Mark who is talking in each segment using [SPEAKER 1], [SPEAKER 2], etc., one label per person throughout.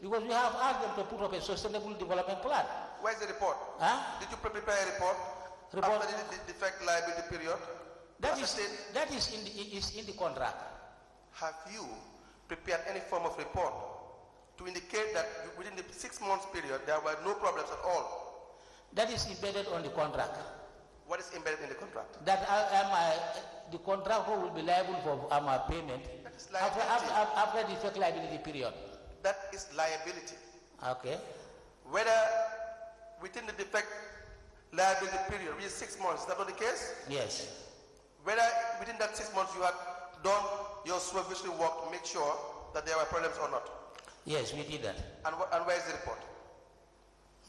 [SPEAKER 1] because we have asked them to put up a sustainable development plan.
[SPEAKER 2] Where's the report?
[SPEAKER 1] Huh?
[SPEAKER 2] Did you pre- prepare a report?
[SPEAKER 1] Report-
[SPEAKER 2] After the de- defect liability period?
[SPEAKER 1] That is,
[SPEAKER 2] Ascertain-
[SPEAKER 1] that is in the, is in the contract.
[SPEAKER 2] Have you prepared any form of report to indicate that you- within the six months period, there were no problems at all?
[SPEAKER 1] That is embedded on the contract.
[SPEAKER 2] What is embedded in the contract?
[SPEAKER 1] That I- am I, the contractor will be liable for am I payment
[SPEAKER 2] That is
[SPEAKER 1] after, after, after
[SPEAKER 2] liability.
[SPEAKER 1] the fake liability period.
[SPEAKER 2] That is liability.
[SPEAKER 1] Okay.
[SPEAKER 2] Whether within the defect liability period, which is six months, is that not the case?
[SPEAKER 1] Yes.
[SPEAKER 2] Whether within that six months you had done your supervisory work to make sure that there were problems or not?
[SPEAKER 1] Yes, we did that.
[SPEAKER 2] And, wh- and where is the report?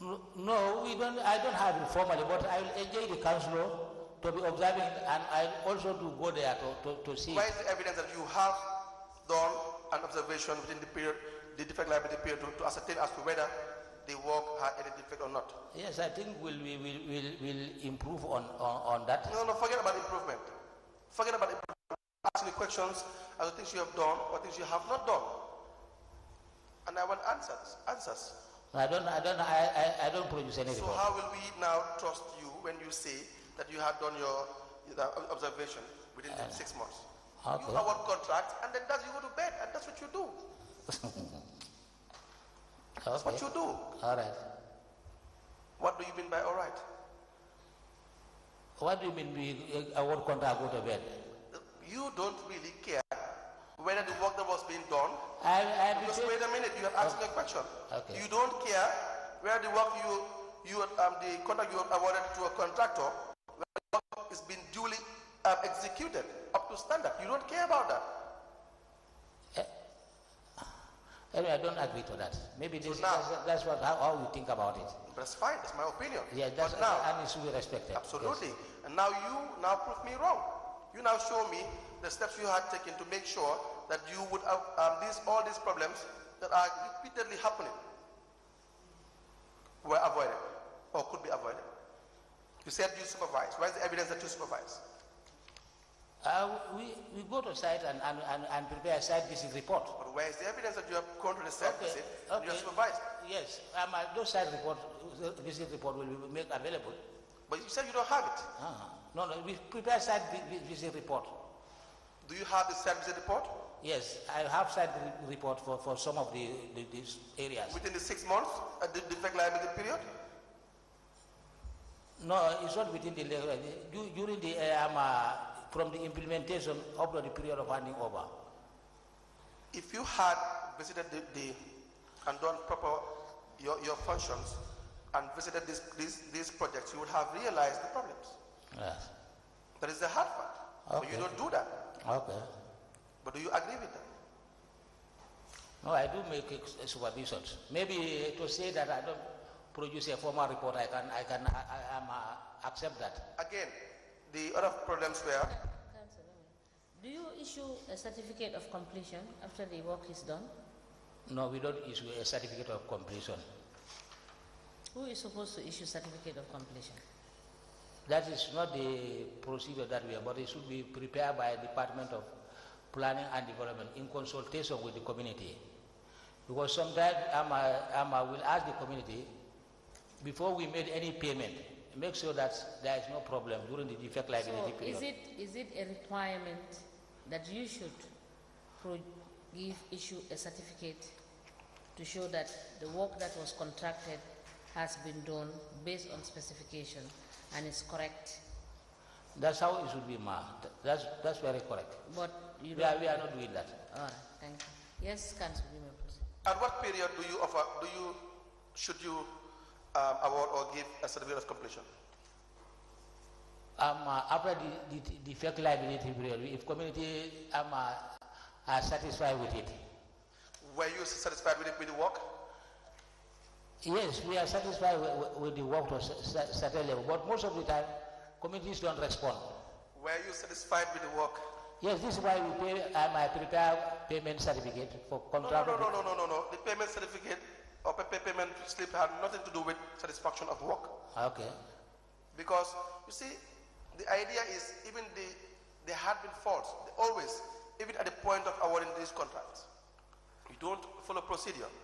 [SPEAKER 1] No- No, we don't, I don't have it formally, but I will engage the councillor to be observing and I also do go there to, to, to see.
[SPEAKER 2] Where is the evidence that you have done an observation within the period, the defect liability period to, to ascertain as to whether the work had any defect or not?
[SPEAKER 1] Yes, I think we'll, we will, will, will improve on, on, on that.
[SPEAKER 2] No, no, forget about improvement. Forget about improvement. Ask me questions as to things you have done or things you have not done. And I want answers. Answers.
[SPEAKER 1] I don't, I don't, I, I, I don't produce any
[SPEAKER 2] So
[SPEAKER 1] report.
[SPEAKER 2] how will we now trust you when you say that you have done your the observation within the six months?
[SPEAKER 1] okay.
[SPEAKER 2] You award contracts and then that's you go to bed and that's what you do.
[SPEAKER 1] Okay.
[SPEAKER 2] That's what you do.
[SPEAKER 1] All right.
[SPEAKER 2] What do you mean by all right?
[SPEAKER 1] What do you mean we uh, award contract go to bed?
[SPEAKER 2] You don't really care whether the work that was being done.
[SPEAKER 1] I, I will
[SPEAKER 2] Just
[SPEAKER 1] take-
[SPEAKER 2] wait a minute, you have asked me a question.
[SPEAKER 1] Oh. Okay.
[SPEAKER 2] You don't care whether the work you you um, the contract you awarded to a contractor whether the work is being duly um, executed up to standard. You don't care about that.
[SPEAKER 1] anyway, I don't agree to that. Maybe this,
[SPEAKER 2] now-
[SPEAKER 1] that's, that's what, how, how we think about it.
[SPEAKER 2] That's fine. That's my opinion.
[SPEAKER 1] Yeah, that's,
[SPEAKER 2] but now,
[SPEAKER 1] and it should be respected.
[SPEAKER 2] absolutely. And now you now prove me wrong. You now show me the steps you had taken to make sure that you would have um, these all these problems that are repeatedly happening were avoided or could be avoided. You said you supervise. Where's the evidence that you supervise?
[SPEAKER 1] Yes. Uh, we, we go to site and, and, and, and prepare a site visit report.
[SPEAKER 2] But where is the evidence that you have gone to the site
[SPEAKER 1] Okay,
[SPEAKER 2] visit and you
[SPEAKER 1] okay.
[SPEAKER 2] have supervised?
[SPEAKER 1] Yes, um, uh, those site report, uh, visit report will be made available.
[SPEAKER 2] But you said you don't have it.
[SPEAKER 1] Ah, No, no, we prepare site vi- vi- visit report.
[SPEAKER 2] Do you have the site visit report
[SPEAKER 1] Yes, I have site re- report for, for some of the, the these areas.
[SPEAKER 2] within the six months at the defect liability period?
[SPEAKER 1] No, it's not within the legal, du- during the, uh, um, uh, from the implementation up to the period of handing over.
[SPEAKER 2] If you had visited the, the and done proper your, your functions and visited these, these, these projects, you would have realized the problems.
[SPEAKER 1] Yes,
[SPEAKER 2] That is the hard part. But
[SPEAKER 1] Okay.
[SPEAKER 2] you don't do that.
[SPEAKER 1] okay.
[SPEAKER 2] But do you agree with that?
[SPEAKER 1] No, I do make ex- supervisions. Maybe to say that I don't produce a formal report, I can, I can, I, I, um, uh, accept that.
[SPEAKER 2] Again, the other problems were
[SPEAKER 3] Councillor, do you issue a certificate of completion after the work is done?
[SPEAKER 1] No, we don't issue a certificate of completion.
[SPEAKER 3] Who is supposed to issue certificate of completion?
[SPEAKER 1] That is not the procedure that we have, but it should be prepared by Department of Planning and Development in consultation with the community. Because sometimes AMA, AMA will ask the community, before we made any payment, make sure that there is no problem during the defect liability
[SPEAKER 3] So is
[SPEAKER 1] period.
[SPEAKER 3] it, is it a requirement that you should pro- give, issue a certificate to show that the work that was contracted has been done based on specification and is correct?
[SPEAKER 1] That's how it should be marked. That's, that's very correct.
[SPEAKER 3] But you
[SPEAKER 1] We are,
[SPEAKER 3] don't.
[SPEAKER 1] we are not doing that.
[SPEAKER 3] All right, thank you. Yes, Councillor, you may proceed.
[SPEAKER 2] at what period do you offer do you should you um, award or give a certificate of completion?
[SPEAKER 1] um, uh, after the, the, the fake liability period, if community um, uh, are satisfied with it,
[SPEAKER 2] Were you satisfied with, it, with the work?
[SPEAKER 1] yes, we are satisfied with, with, with the work to a cer- certain level, but most of the time, communities don't respond.
[SPEAKER 2] Were you satisfied with the work?
[SPEAKER 1] Yes, this is why we pay, um, I prepare payment certificate for
[SPEAKER 2] No, no,
[SPEAKER 1] contract.
[SPEAKER 2] no, no, no, no, no, no. The payment certificate or pay- pay- payment slip had nothing to do with satisfaction of work.
[SPEAKER 1] Ah, Okay,
[SPEAKER 2] Because you see, the idea is even the there had been faults always, even at the point of awarding these contracts. You don't follow procedure.